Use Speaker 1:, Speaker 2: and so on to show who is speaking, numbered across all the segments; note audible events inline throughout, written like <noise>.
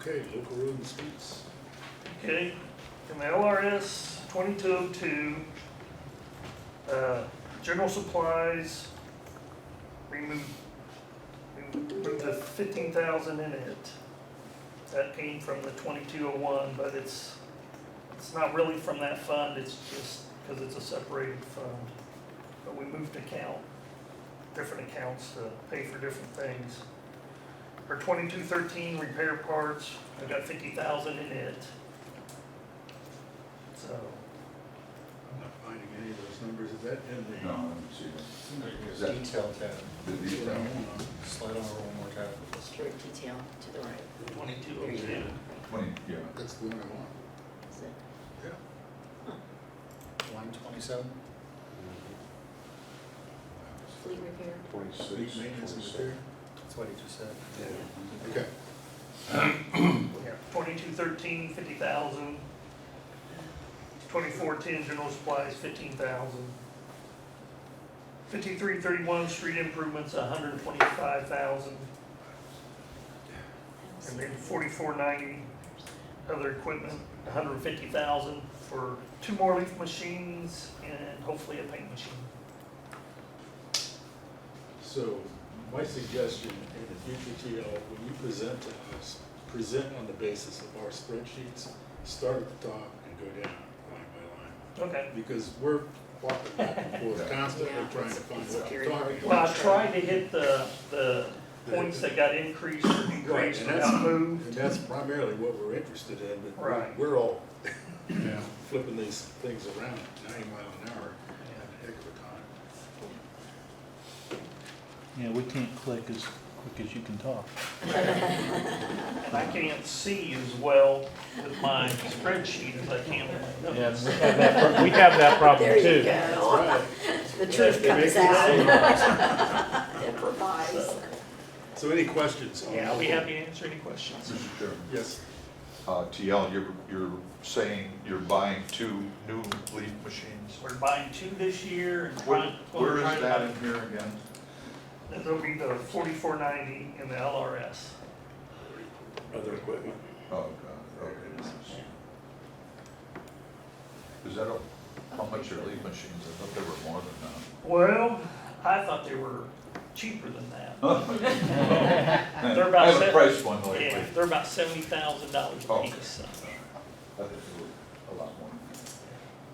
Speaker 1: Okay, local road and streets.
Speaker 2: Okay, in the LRS twenty-two oh two, uh, general supplies, remove, remove the fifteen thousand in it. That came from the twenty-two oh one, but it's, it's not really from that fund, it's just because it's a separated fund. But we moved account, different accounts to pay for different things. For twenty-two thirteen repair parts, I've got fifty thousand in it. So,
Speaker 1: I'm not finding any of those numbers, is that in the?
Speaker 3: No, she,
Speaker 4: There's
Speaker 3: That-
Speaker 4: detail tab.
Speaker 3: the detail.
Speaker 4: Slide over one more tab.
Speaker 5: Straight detail to the right.
Speaker 2: twenty-two
Speaker 5: There
Speaker 2: oh
Speaker 5: you
Speaker 2: two.
Speaker 5: go.
Speaker 3: Twenty, yeah.
Speaker 1: That's the one I want.
Speaker 5: Is it-
Speaker 4: Line twenty-seven?
Speaker 5: Fleet repair?
Speaker 1: Fleet
Speaker 6: Twenty-six,
Speaker 1: maintenance and
Speaker 6: twenty-seven.
Speaker 1: repair.
Speaker 4: That's what he just said.
Speaker 1: Okay,
Speaker 2: Yeah, twenty-two thirteen, fifty thousand. Twenty-four ten, general supplies, fifteen thousand. Fifty-three thirty-one, street improvements, hundred and twenty-five thousand. And then forty-four ninety, other equipment, hundred and fifty thousand for two more leaf machines and hopefully a paint machine.
Speaker 1: so my suggestion in the future, TL, when you present to us, present on the basis of our spreadsheets, start at the top and go down line by line.
Speaker 2: Okay.
Speaker 1: Because we're walking back and forth constantly
Speaker 5: Yeah,
Speaker 1: trying to
Speaker 5: it's-
Speaker 1: find
Speaker 5: it's
Speaker 1: what we're
Speaker 5: very
Speaker 1: talking
Speaker 5: hard.
Speaker 1: about.
Speaker 2: Well, I tried to hit the, the points that got increased or
Speaker 1: Right,
Speaker 2: decreased
Speaker 1: and that's,
Speaker 2: without
Speaker 1: and
Speaker 2: moved.
Speaker 1: that's primarily what we're interested in, but we're-
Speaker 2: Right.
Speaker 1: we're all flipping these things around at ninety mile an hour, having a heck of a time.
Speaker 7: Yeah, we can't click as quick as you can talk.
Speaker 2: And I can't see as well with my spreadsheet as I can with my
Speaker 7: Yeah,
Speaker 2: notes.
Speaker 7: we have that, pro- we have that problem
Speaker 5: There
Speaker 7: too.
Speaker 5: you go. The truth
Speaker 1: They make
Speaker 5: comes
Speaker 1: it
Speaker 5: <laughs>
Speaker 1: seem
Speaker 5: out.
Speaker 1: like-
Speaker 5: Improvise.
Speaker 1: So any questions? on-
Speaker 2: Yeah, I'll be happy to answer any questions.
Speaker 3: Mr. Chairman.
Speaker 1: Yes,
Speaker 3: Uh, TL, you're, you're saying you're buying two new leaf machines?
Speaker 2: We're buying two this year and
Speaker 3: Where,
Speaker 2: trying.
Speaker 3: where
Speaker 2: trying
Speaker 3: is
Speaker 2: to
Speaker 3: that
Speaker 2: buy-
Speaker 3: in here again?
Speaker 2: That'll be the forty-four ninety in the LRS.
Speaker 1: other equipment.
Speaker 3: Oh, God, okay. Is that, a- how much are leaf machines? I thought there were more than
Speaker 2: Well, I thought they were cheaper than that.
Speaker 3: Oh, that.
Speaker 2: They're about
Speaker 3: I haven't
Speaker 2: set-
Speaker 3: priced one lately.
Speaker 2: Yeah, they're about seventy thousand dollars a
Speaker 3: Okay.
Speaker 2: piece, so.
Speaker 3: I think they were a lot more.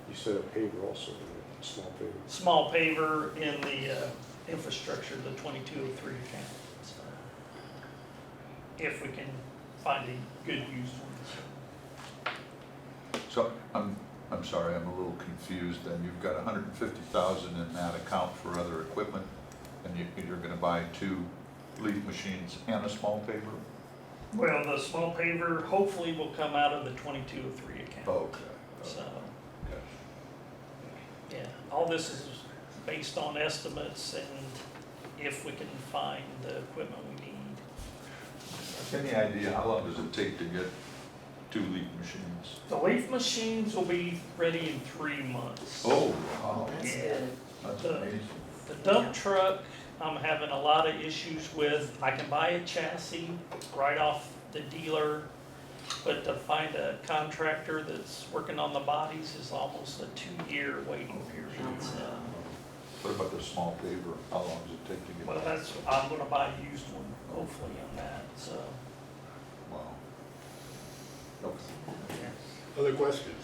Speaker 6: You said a paver also, a small paver.
Speaker 2: Small paver in the uh, infrastructure, the twenty-two oh three account. so. If we can find a good used one.
Speaker 3: So, I'm, I'm sorry, I'm a little confused, then you've got hundred and fifty thousand in that account for other equipment, and you, you're gonna buy two leaf machines and a small paper?
Speaker 2: Well, the small paver hopefully will come out of the twenty-two oh three account,
Speaker 3: Okay.
Speaker 2: so,
Speaker 3: okay.
Speaker 2: yeah. All this is based on estimates and if we can find the equipment we need.
Speaker 3: Any idea, how long does it take to get two leaf machines?
Speaker 2: The leaf machines will be ready in three months.
Speaker 3: Oh, wow,
Speaker 5: That's
Speaker 2: Yeah.
Speaker 5: good.
Speaker 3: that's amazing.
Speaker 2: The dump truck, I'm having a lot of issues with. I can buy a chassis right off the dealer, but to find a contractor that's working on the bodies is almost a two-year waiting period. so.
Speaker 3: What about the small paper, how long does it take to get?
Speaker 2: Well,
Speaker 3: that?
Speaker 2: that's, I'm gonna buy a used one, hopefully on that, so.
Speaker 3: Wow. Okay.
Speaker 1: Other questions?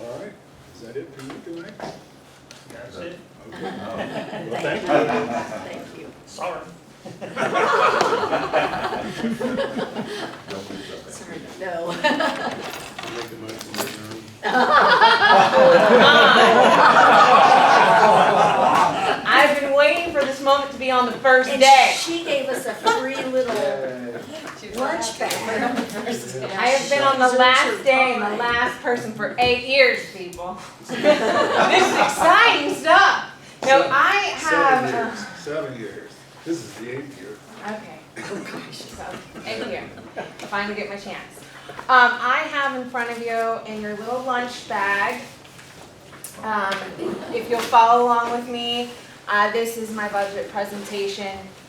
Speaker 1: All right, is that it for you tonight?
Speaker 2: That's it.
Speaker 1: <laughs> Okay.
Speaker 3: No.
Speaker 1: Well, thank you.
Speaker 5: Thank you.
Speaker 2: Sorry.
Speaker 3: Don't do that.
Speaker 5: Sorry, no.
Speaker 1: I'll Make the motion to adjourn.
Speaker 8: Ah. I've been waiting for this moment to be on the first
Speaker 5: And
Speaker 8: day.
Speaker 5: she gave us a free little lunch bag.
Speaker 8: I have been on the last day and the last person for eight years, people. This is exciting stuff. No, I
Speaker 1: <laughs> Seven
Speaker 8: have, uh,
Speaker 1: years, seven years. This is the eighth year.
Speaker 8: okay. Oh, So, eight year, finally get my chance. Um, I have in front of you in your little lunch bag, um, if you'll follow along with me, uh, this is my budget presentation